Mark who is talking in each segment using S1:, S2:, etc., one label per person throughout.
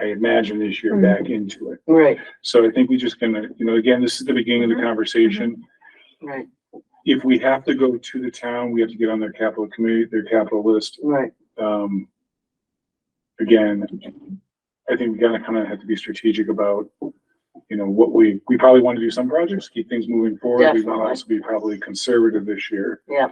S1: I imagine this year
S2: Mm-hmm.
S1: back into it.
S2: Right,
S1: So I think we just gonna, you know, again, this is the beginning
S2: Mm-hmm.
S1: of the conversation.
S2: right,
S1: If we have to go to the town, we have to get on their capital committee, their capital list.
S2: right.
S1: Um, again, I think we gotta kind of have to be strategic about, you know, what we, we probably want to do some projects, keep things moving forward. We want to
S2: Definitely.
S1: also be probably conservative this year.
S2: Yeah.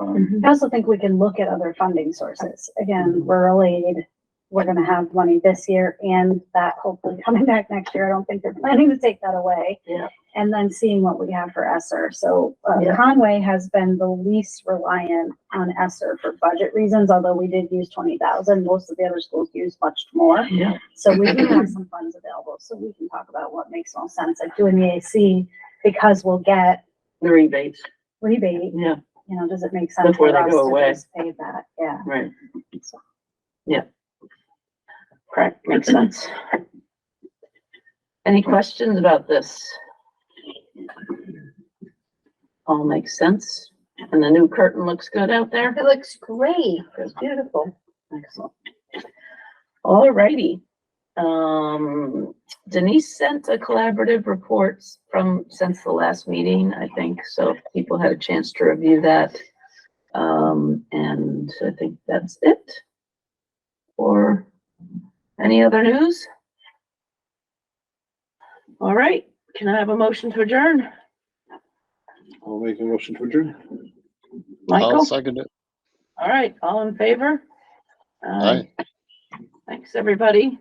S1: Um,
S3: I also think we can look at other funding sources. Again,
S2: Mm-hmm.
S3: rural aid, we're gonna have money this year and that hopefully coming back next year. I don't think they're planning to take that away.
S2: Yeah.
S3: And then seeing what we have for Esser. So uh,
S2: Yeah.
S3: Conway has been the least reliant on Esser for budget reasons, although we did use twenty thousand. Most of the other schools used much more.
S2: Yeah.
S3: So we do have some funds available, so we can talk about what makes most sense, like doing the AC, because we'll get
S2: The rebates,
S3: rebate
S2: yeah,
S3: you know, does it make sense
S2: Before
S3: for
S2: they
S3: us
S2: go away.
S3: to just pay that? Yeah.
S2: right. Correct, makes sense. Any questions about this? All makes sense, and the new curtain looks good out there? It looks great. It's beautiful. Excellent. All righty. Um, Denise sent a collaborative report from, since the last meeting, I think, so if people had a chance to review that. Um, and I think that's it. Or any other news? All right, can I have a motion to adjourn?
S4: I'll make a motion to adjourn.
S5: I'll
S2: Michael,
S5: second it.
S2: all right, all in favor?
S5: Aye.
S2: Thanks, everybody.